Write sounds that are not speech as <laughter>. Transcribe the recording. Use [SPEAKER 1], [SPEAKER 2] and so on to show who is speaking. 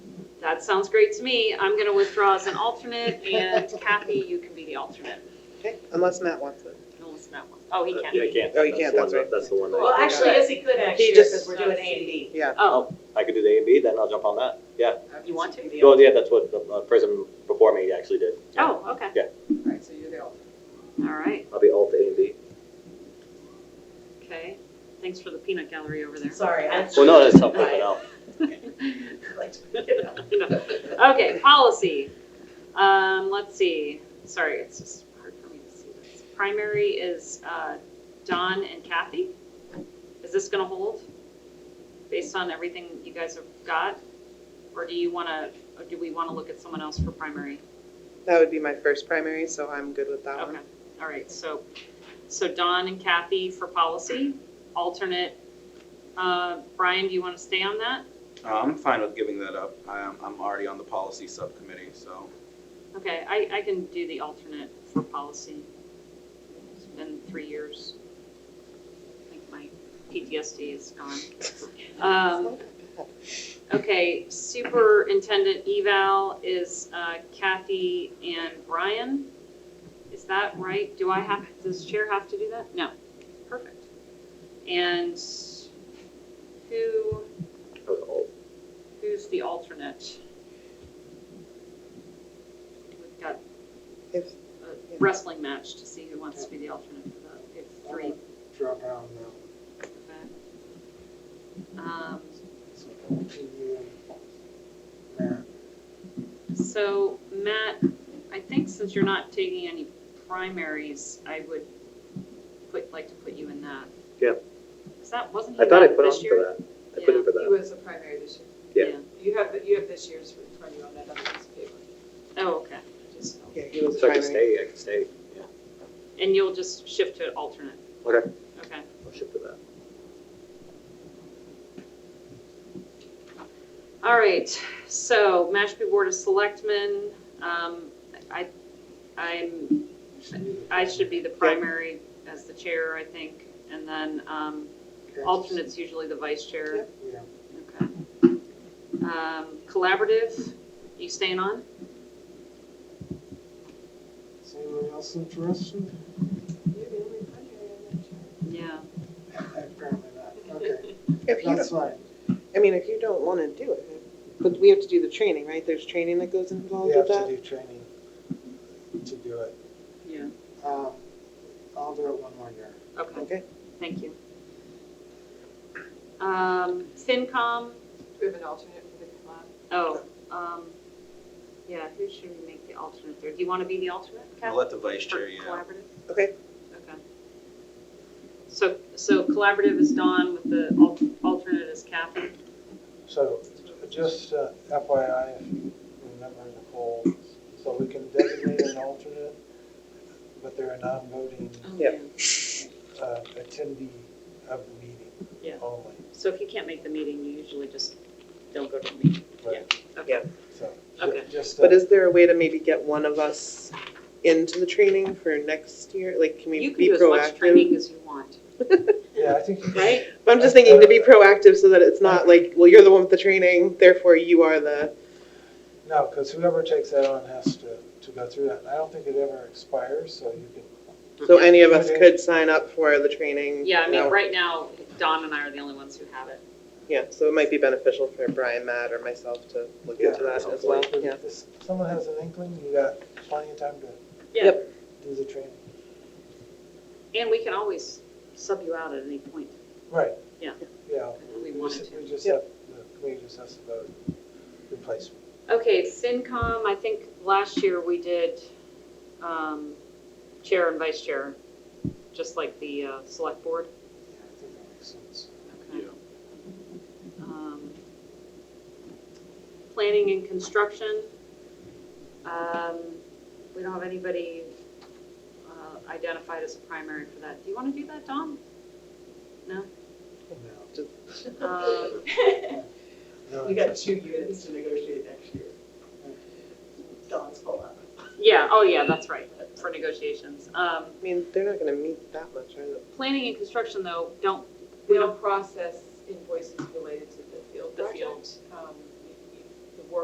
[SPEAKER 1] that sounds great to me. I'm going to withdraw as an alternate, and Kathy, you can be the alternate.
[SPEAKER 2] Okay, unless Matt wants it.
[SPEAKER 1] Unless Matt wants, oh, he
[SPEAKER 3] Uh, Yeah, I
[SPEAKER 1] can.
[SPEAKER 3] can't.
[SPEAKER 2] Oh, you can't,
[SPEAKER 3] the
[SPEAKER 2] that's
[SPEAKER 3] one
[SPEAKER 2] right.
[SPEAKER 3] that- That's the one
[SPEAKER 4] Well,
[SPEAKER 3] that,
[SPEAKER 4] actually, yes, he could next
[SPEAKER 2] He
[SPEAKER 4] year,
[SPEAKER 2] just-
[SPEAKER 4] because we're doing A and B.
[SPEAKER 2] Yeah.
[SPEAKER 1] Oh,
[SPEAKER 3] I could do the A and B, then I'll jump on that, yeah.
[SPEAKER 1] you want to?
[SPEAKER 3] Well, yeah, that's what the uh, person before me actually did. Yeah.
[SPEAKER 1] Oh, okay,
[SPEAKER 2] Right, so you're the alternate.
[SPEAKER 1] all right,
[SPEAKER 3] I'll be alt A and B.
[SPEAKER 1] okay. Thanks for the peanut gallery over there.
[SPEAKER 4] Sorry, I. <laughs>
[SPEAKER 3] Well, no, that's helpful, but I'll-
[SPEAKER 1] <laughs> Okay, policy. Um, let's see, sorry, it's just hard for me to see this. Primary is, uh, Don and Kathy. Is this gonna hold based on everything you guys have got? Or do you wanna, or do we wanna look at someone else for primary?
[SPEAKER 2] That would be my first primary, so I'm good with that
[SPEAKER 1] Okay,
[SPEAKER 2] one.
[SPEAKER 1] all right, so, so Don and Kathy for policy, alternate. Uh, Brian, do you wanna stay on that?
[SPEAKER 5] Uh, I'm fine with giving that up. I am, I'm already on the policy subcommittee, so.
[SPEAKER 1] Okay, I, I can do the alternate for policy. It's been three years. I think my PTSD is gone. Um, Okay, superintendent eval is uh, Kathy and Brian. Is that right? Do I have, does chair have to do that? No. Perfect. And who,
[SPEAKER 3] I was alt.
[SPEAKER 1] who's the alternate? We've got
[SPEAKER 2] If-
[SPEAKER 1] a wrestling match to see who wants to be the alternate for that. We have three.
[SPEAKER 6] Drop out now.
[SPEAKER 1] Um,
[SPEAKER 6] So, you and Matt.
[SPEAKER 1] So Matt, I think since you're not taking any primaries, I would put, like to put you in that.
[SPEAKER 3] Yeah.
[SPEAKER 1] Is that, wasn't he
[SPEAKER 3] I thought I
[SPEAKER 1] that
[SPEAKER 3] put on
[SPEAKER 1] this
[SPEAKER 3] for
[SPEAKER 1] year?
[SPEAKER 3] that. I put in for
[SPEAKER 4] He
[SPEAKER 3] that.
[SPEAKER 4] was a primary this year.
[SPEAKER 3] Yeah.
[SPEAKER 4] You have, you have this year's for for you on that other piece of paper,
[SPEAKER 1] Oh, okay.
[SPEAKER 4] just. so.
[SPEAKER 2] Yeah, he was
[SPEAKER 3] So I can
[SPEAKER 2] primary.
[SPEAKER 3] stay, I can stay, yeah.
[SPEAKER 1] And you'll just shift to alternate?
[SPEAKER 3] Okay.
[SPEAKER 1] Okay.
[SPEAKER 3] I'll shift to that.
[SPEAKER 1] All right, so Mashpee Board of Selectmen, um, I, I'm,
[SPEAKER 6] You should do the-
[SPEAKER 1] I should be the primary as the chair, I think, and then, um,
[SPEAKER 6] Okay.
[SPEAKER 1] alternate's usually the vice chair.
[SPEAKER 6] Yeah.
[SPEAKER 1] Okay. Um, collaborative, you staying on?
[SPEAKER 6] Is anyone else interested?
[SPEAKER 4] You're the only primary on
[SPEAKER 1] Yeah.
[SPEAKER 4] that chart.
[SPEAKER 6] <laughs> Apparently not.
[SPEAKER 1] <laughs>
[SPEAKER 6] Okay,
[SPEAKER 2] If you,
[SPEAKER 6] that's fine.
[SPEAKER 2] I mean, if you don't want to do it, but we have to do the training, right? There's training that goes
[SPEAKER 6] We
[SPEAKER 2] involved with
[SPEAKER 6] have to
[SPEAKER 2] that?
[SPEAKER 6] do training to do it.
[SPEAKER 1] Yeah.
[SPEAKER 6] Um, I'll do it one more year.
[SPEAKER 1] Okay,
[SPEAKER 2] Okay,
[SPEAKER 1] thank you. Um, FinCom,
[SPEAKER 4] Do we have an alternate for the club?
[SPEAKER 1] oh, um, yeah, who should we make the alternate there? Do you want to be the alternate, Kathy?
[SPEAKER 5] I'll let the vice
[SPEAKER 1] For
[SPEAKER 5] chair, yeah.
[SPEAKER 1] Collaborative?
[SPEAKER 2] okay.
[SPEAKER 1] Okay. So, so collaborative is Dawn with the al- alternate is Kathy?
[SPEAKER 6] So just uh, FYI, if you remember Nicole, so we can designate an alternate, but they're a non-voting
[SPEAKER 2] Yeah.
[SPEAKER 6] uh, attendee of the meeting
[SPEAKER 1] Yeah.
[SPEAKER 6] only.
[SPEAKER 1] So if you can't make the meeting, you usually just don't go to the meeting.
[SPEAKER 6] Right.
[SPEAKER 1] Okay.
[SPEAKER 6] So ju-
[SPEAKER 1] Okay.
[SPEAKER 6] just. uh,
[SPEAKER 2] But is there a way to maybe get one of us into the training for next year? Like, can we
[SPEAKER 1] You can
[SPEAKER 2] be
[SPEAKER 1] do as much
[SPEAKER 2] proactive?
[SPEAKER 1] training as you want,
[SPEAKER 6] Yeah, I think.
[SPEAKER 1] right?
[SPEAKER 2] But I'm just thinking to be proactive so that it's not like, well, you're the one with the training, therefore you are the,
[SPEAKER 6] No, because whoever takes that on has to, to go through that. And I don't think it ever expires, so you can.
[SPEAKER 2] so any of us could sign up for the training.
[SPEAKER 1] Yeah, I
[SPEAKER 2] now.
[SPEAKER 1] mean, right now, Dawn and I are the only ones who have it.
[SPEAKER 2] Yeah, so it might be beneficial for Brian, Matt, or myself to look
[SPEAKER 6] Yeah,
[SPEAKER 2] into that as well,
[SPEAKER 6] If
[SPEAKER 2] yeah.
[SPEAKER 6] this- Someone has an inkling, you got plenty of time to
[SPEAKER 1] Yeah,
[SPEAKER 2] Yep.
[SPEAKER 6] do the training.
[SPEAKER 1] and we can always sub you out at any point
[SPEAKER 6] Right.
[SPEAKER 1] Yeah.
[SPEAKER 6] Yeah.
[SPEAKER 1] if we wanted
[SPEAKER 6] just-
[SPEAKER 1] to.
[SPEAKER 6] We just
[SPEAKER 2] Yeah.
[SPEAKER 6] have, the committee just has to vote replacement.
[SPEAKER 1] Okay, FinCom, I think last year we did um, chair and vice chair, just like the uh, select board.
[SPEAKER 6] Yeah, I think that makes sense.
[SPEAKER 1] Okay. Um, Planning and construction. um, We don't have anybody uh, identified as a primary for that. Do you want to do that, Don?
[SPEAKER 6] No,
[SPEAKER 1] Um,
[SPEAKER 6] no,
[SPEAKER 4] We got
[SPEAKER 6] it's-
[SPEAKER 4] two units to negotiate next year. Don's full up.
[SPEAKER 1] Yeah, oh yeah, that's right, for negotiations. Um,
[SPEAKER 2] I mean, they're not gonna meet that much, are they?
[SPEAKER 1] Planning and construction, though, don't,
[SPEAKER 4] We don't process invoices related to the field
[SPEAKER 1] The field.
[SPEAKER 4] project. Um,